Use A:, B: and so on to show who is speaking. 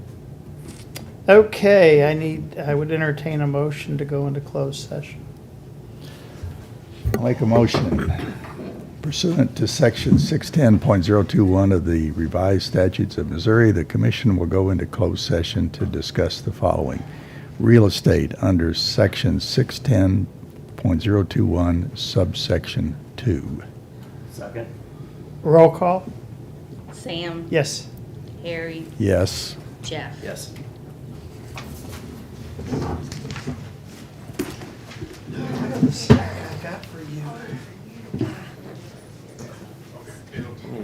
A: Okay, I need, I would entertain a motion to go into closed session.
B: I'll make a motion pursuant to section 610.021 of the revised statutes of Missouri, the commission will go into closed session to discuss the following. Real estate under section 610.021 subsection 2.
C: Second.
A: Roll call?
D: Sam,
A: Yes.
D: Harry,
B: Yes.
D: Jeff.
C: Yes.
A: I got for you.